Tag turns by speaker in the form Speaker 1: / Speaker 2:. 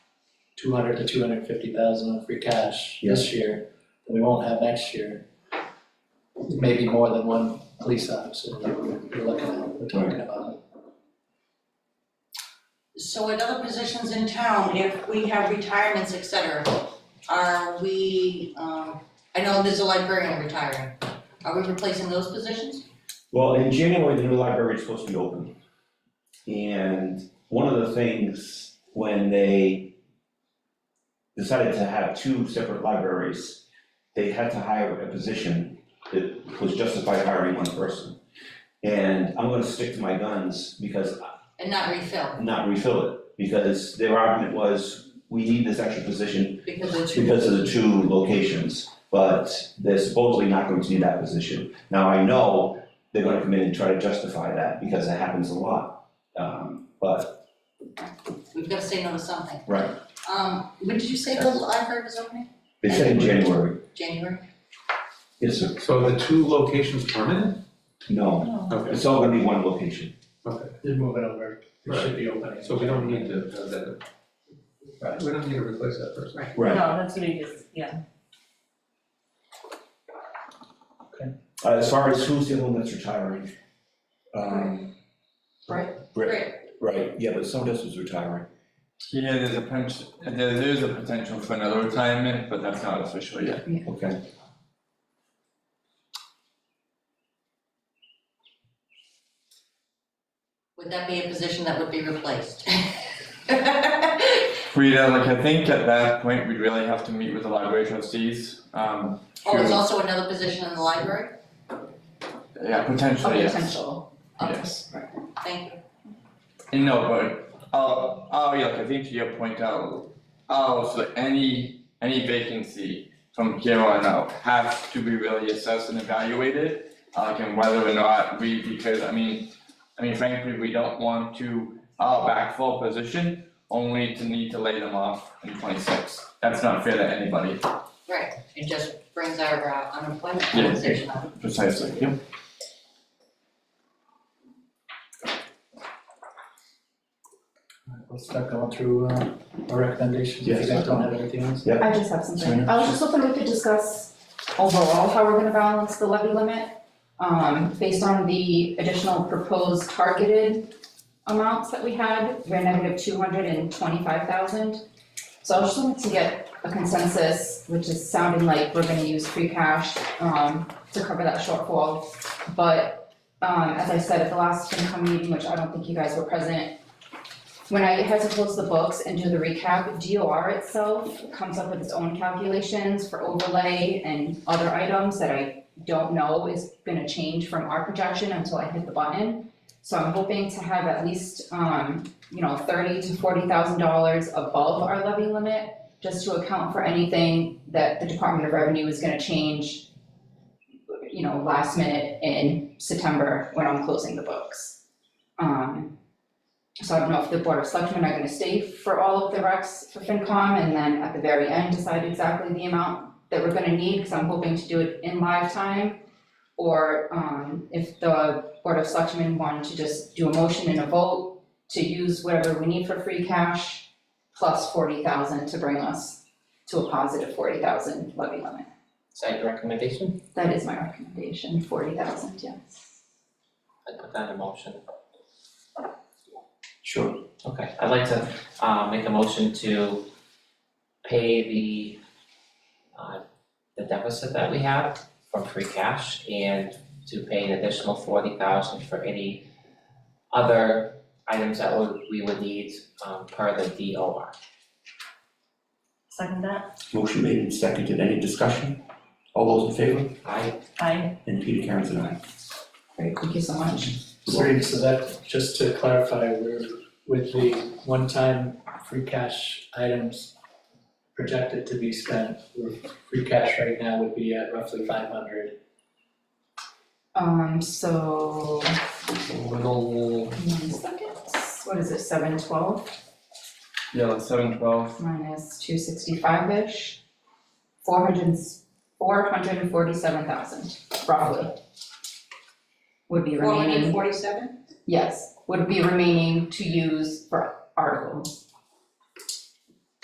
Speaker 1: two hundred to two hundred fifty thousand of free cash this year that we won't have next year. Maybe more than one police officer that we're we're looking at, we're talking about.
Speaker 2: So at other positions in town, if we have retirements, et cetera, are we, um, I know there's a librarian retiring. Are we replacing those positions?
Speaker 3: Well, in January, the new library is supposed to be open. And one of the things, when they decided to have two separate libraries, they had to hire a position that was justified hiring one person. And I'm gonna stick to my guns because,
Speaker 2: And not refill,
Speaker 3: not refill it, because their argument was, we need this extra position
Speaker 2: because it's.
Speaker 3: because of the two locations, but they're supposedly not going to need that position. Now, I know they're gonna come in and try to justify that because it happens a lot. Um, but,
Speaker 2: We've gotta say no to something.
Speaker 3: Right.
Speaker 2: Um, when did you say the library was opening?
Speaker 3: they said in January,
Speaker 2: January?
Speaker 3: yes, sir,
Speaker 4: So the two locations permanent?
Speaker 3: no,
Speaker 2: No.
Speaker 4: Okay,
Speaker 3: it's all gonna be one location.
Speaker 4: okay,
Speaker 1: They're moving over, it should be opening.
Speaker 4: so we don't need to, have that. Right, we don't need to replace that person.
Speaker 3: Right.
Speaker 5: No, that's what it is, yeah.
Speaker 3: Uh, as far as who's the one that's retiring? Um,
Speaker 2: Great.
Speaker 3: right, yeah, but someone else is retiring.
Speaker 6: Yeah, there's a punch, there, there's a potential for another retirement, but that's not official yet.
Speaker 3: Okay,
Speaker 2: Would that be a position that would be replaced? Oh,
Speaker 6: Rita, like, I think at that point, we'd really have to meet with the library trustees, um,
Speaker 2: Oh, there's
Speaker 6: Sure.
Speaker 2: also another position in the library?
Speaker 6: yeah, potentially,
Speaker 5: Okay,
Speaker 6: yes.
Speaker 5: Potential.
Speaker 2: Okay,
Speaker 6: Yes,
Speaker 2: Thank you.
Speaker 6: and no, but, I'll, I'll, yeah, like, I think to your point, I'll, I'll, so any, any vacancy from here on out have to be really assessed and evaluated, uh, and whether or not we, because, I mean, I mean, frankly, we don't want to, uh, backfill a position only to need to lay them off in twenty-six. That's not fair to anybody.
Speaker 2: Right, it just brings our uh, unemployment
Speaker 6: Yeah.
Speaker 2: conversation up.
Speaker 6: Precisely, yep.
Speaker 1: Let's start going through uh, our recommendations, if you
Speaker 3: Yes.
Speaker 1: guys don't have anything else.
Speaker 7: I just have something. I was just hoping we could discuss overall how we're gonna balance the levy limit. Um, based on the additional proposed targeted amounts that we had, we're negative two hundred and twenty-five thousand. So I was just wanted to get a consensus, which is sounding like we're gonna use free cash, um, to cover that shortfall. But, um, as I said at the last FinCom meeting, which I don't think you guys were present, when I had to close the books and do the recap, DOR itself comes up with its own calculations for overlay and other items that I don't know is gonna change from our projection until I hit the button. So I'm hoping to have at least, um, you know, thirty to forty thousand dollars above our levy limit, just to account for anything that the Department of Revenue is gonna change, you know, last minute in September when I'm closing the books. Um, so I don't know if the board of selectmen are gonna stay for all of the recs for FinCom and then at the very end decide exactly the amount that we're gonna need, cause I'm hoping to do it in live time. Or um if the board of selectmen wanted to just do a motion and a vote to use whatever we need for free cash plus forty thousand to bring us to a positive forty thousand levy limit.
Speaker 8: Is that your recommendation?
Speaker 7: That is my recommendation, forty thousand, yes.
Speaker 8: I put that in motion.
Speaker 3: sure.
Speaker 8: Okay, I'd like to uh make a motion to pay the uh the deficit that we have from free cash and to pay an additional forty thousand for any other items that would we would need um per the D O R.
Speaker 5: Second that,
Speaker 3: Motion made and seconded, any discussion? All those in favor?
Speaker 8: I
Speaker 5: I,
Speaker 3: And Peter Karen's an aye.
Speaker 7: Great, thank you so much.
Speaker 1: Sorry, so that, just to clarify, we're with the one-time free cash items projected to be spent, we're, free cash right now would be at roughly five hundred.
Speaker 7: Um so
Speaker 8: little
Speaker 7: One second, what is it, seven twelve
Speaker 6: Yeah, like seven twelve.
Speaker 7: minus two sixty-five-ish? Four hundred, four hundred and forty-seven thousand, roughly. Would be
Speaker 2: Four hundred
Speaker 7: remaining,
Speaker 2: forty-seven?
Speaker 7: yes, would be remaining to use for articles.